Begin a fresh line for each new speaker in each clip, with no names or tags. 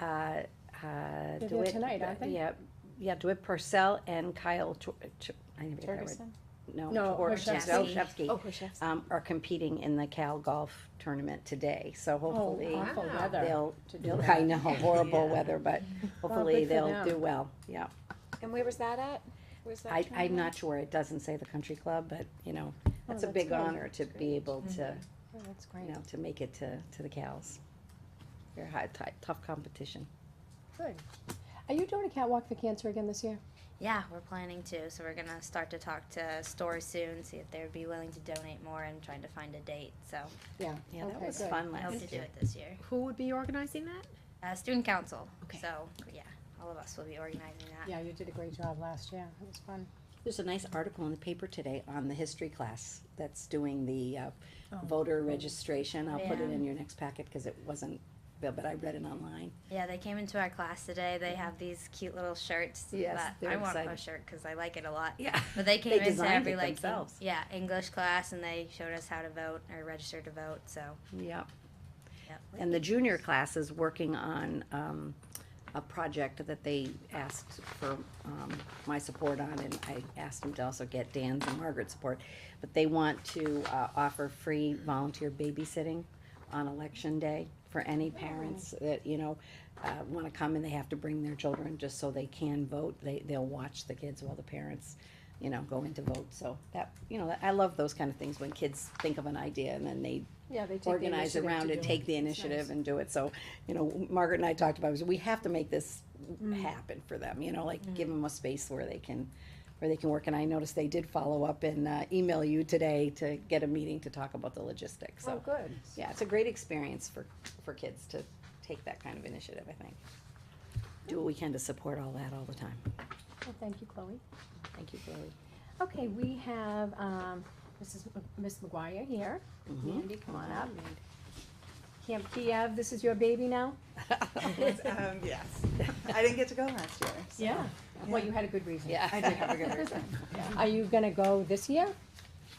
uh, uh,
They're there
DeWitt-
tonight, aren't they?
Yeah, yeah, DeWitt Purcell and Kyle, Tor- Ch- I didn't get that right.
Ferguson?
No,
No,
Orshevsky.
Orshevsky.
Oh,
Orshevsky, um, are competing in the Cal Golf Tournament today, so
Oh,
hopefully
awful
Wow.
weather.
they'll,
to do
they'll-
that.
I know, horrible
Yeah.
weather, but hopefully
good for
they'll
them.
do well, yeah.
And where was that at? Where's that?
I, I'm
tournament?
not sure, it doesn't say the country club, but, you know, that's a
Oh, that's Mm-hmm.
big
good.
honor to be able to,
Oh, that's
you
great.
know, to make it to, to the Cals. Very high, ti- tough competition.
Good. Are you doing a catwalk for cancer again this year?
Yeah, we're planning to. So we're gonna start to talk to stores soon, see if they would be willing to donate more, and trying to find a date. So
Yeah, that
Okay,
was
good.
fun
I hope
last
to do
year.
it this year.
Who would be organizing that?
Uh, student council.
Okay.
So yeah, all of us will be organizing that.
Yeah, you did a great job last year. It was fun.
There's a nice article in the paper today on the history class that's doing the uh,
Oh.
voter registration. I'll put it
Yeah.
in your next packet because it wasn't, but but I read it online.
Yeah, they came into our class today. They have these cute little shirts.
Yes,
that
they're
I want
excited.
a shirt because I like it a lot.
Yeah.
But they came
They
into
designed
every
it
like en-
themselves.
yeah English class, and they showed us how to vote or register to vote. So
Yep.
Yep.
And the junior class is working on um, a project that they asked for um, my support on, and I asked them to also get Dan's and Margaret's support. But they want to uh, offer free volunteer babysitting on election day for any parents that, you know, want to come and they have to bring their children just so they can vote. They, they'll watch the kids while the parents, you know, go in to vote. So that, you know, I love those kind of things when kids think of an idea and then they
Yeah, they take the
organize
initiative
around
to
it,
do
take the
It's
initiative
nice.
and do it. So, you know, Margaret and I talked about, it, we have to make this
Mm.
happen for them, you know, like give them a space where they can, where they can work. And I noticed they did follow up and uh, email you today to get a meeting to talk about the logistics.
Oh,
So,
good.
yeah, it's a great experience for, for kids to take that kind of initiative, I think. Do what we can to support all that all the time.
Well, thank you, Chloe.
Thank you, Chloe.
Okay, we have, um, Mrs., M- Ms. McGuire here.
Mhm.
Mm-hmm.
Mandy, come on up. Camp Kiev, this is your baby now?
Um, yes. I didn't get to go last year. so-
Well, you had a good reason.
Yeah.
I did have a good reason.
Are you gonna go this year?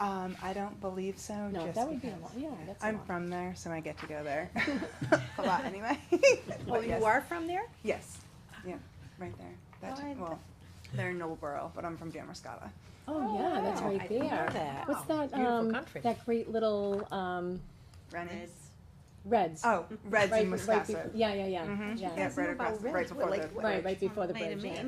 Um, I don't believe so,
No,
just
that would be a
because
lot, yeah, that's a
I'm
lot.
from there, so I get to go there. A lot, anyway.
Oh,
But yes,
you are from there?
Yes, yeah, right there. That,
Oh, I-
well, they're in Noblesboro, but I'm from Damascata.
Oh, yeah, that's
wow. I
right
didn't know
there.
that.
What's that,
Beautiful
um,
country.
that great little, um,
Rennie's.
Reds?
Oh, Reds
Right-
in
right befo-
Wisconsin.
Yeah, yeah, yeah,
Mm-hmm.
Mhm.
yeah.
Yeah, right across, right before the,
Right, right before the bridge, yeah.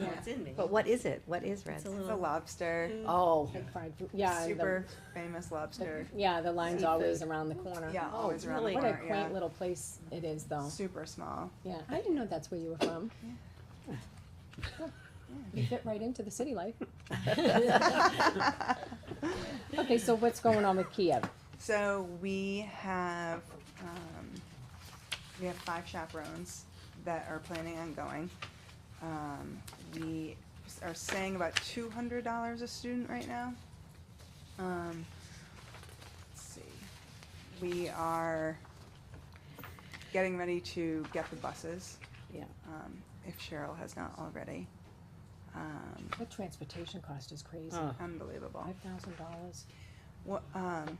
Yeah.
But what is it? What is Reds?
it's a lobster,
Oh,
Like fried food- Yeah,
super
the,
famous lobster.
yeah, the line's always around the corner.
Yeah,
Oh,
always around the
really?
What a
corner,
quaint
yeah.
little place it is, though.
Super small.
Yeah, I didn't know that's where you were from. You fit right into the city life. Okay, so what's going on with Kiev?
So we have, um, we have five chaperones that are planning on going. Um, we are saying about two hundred dollars a student right now. Um, let's see, we are getting ready to get the buses,
yeah.
um, if Cheryl has not already. Um,
The transportation cost is crazy.
Oh.
unbelievable.
Five thousand dollars.
What, um,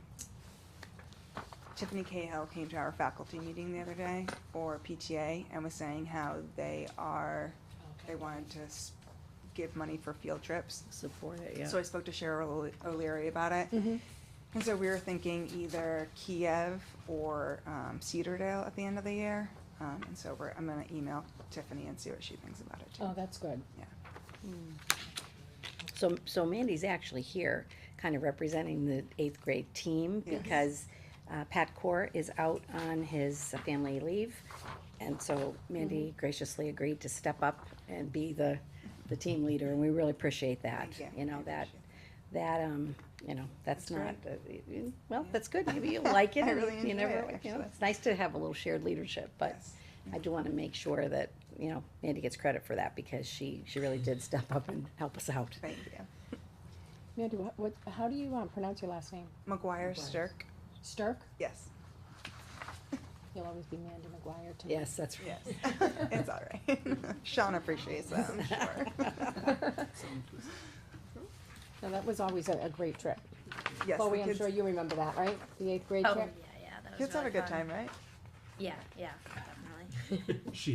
Tiffany Cahill came to our faculty meeting the other day, or PTA, and was saying how they are, they wanted to s- give money for field trips.
Support it, yeah.
So I spoke to Cheryl O'Le- O'Leary about it. And so we were thinking either Kiev or um, Cedardale at the end of the year. Um, and so we're, I'm gonna email Tiffany and see what she thinks about it too.
Oh, that's good.
So, so Mandy's actually here, kind of representing the eighth grade team,
Yes.
because uh, Pat Core is out on his family leave. And so Mandy
Mm-hmm.
graciously agreed to step up and be the, the team leader, and we really appreciate that.
Thank you.
You
I
know, that,
appreciate
that, um, you know, that's
That's
not, uh, uh, well, that's good, maybe you'll like it.
I
and
really
you
enjoy
never-
it,
you know,
actually.
It's nice to have a little shared leadership, but
Yes.
I do wanna make sure that, you know, Mandy gets credit for that, because she, she really did step up and help us out.
Thank you.
Mandy, what, what, how do you, um, pronounce your last name?
McGuire Stirk,
Sterk?
yes,
You'll always be Mandy McGuire to me.
Yes, that's right.
yes. It's all right. Sean appreciates that, I'm sure.
No, that was always a, a great trip.
Yes, the
Chloe, I'm
kids-
sure you remember that, right? The eighth grade
Oh
trip?
yeah, yeah. That was
Kids have
really
a good
fun.
time, right?
Yeah, yeah, definitely.
She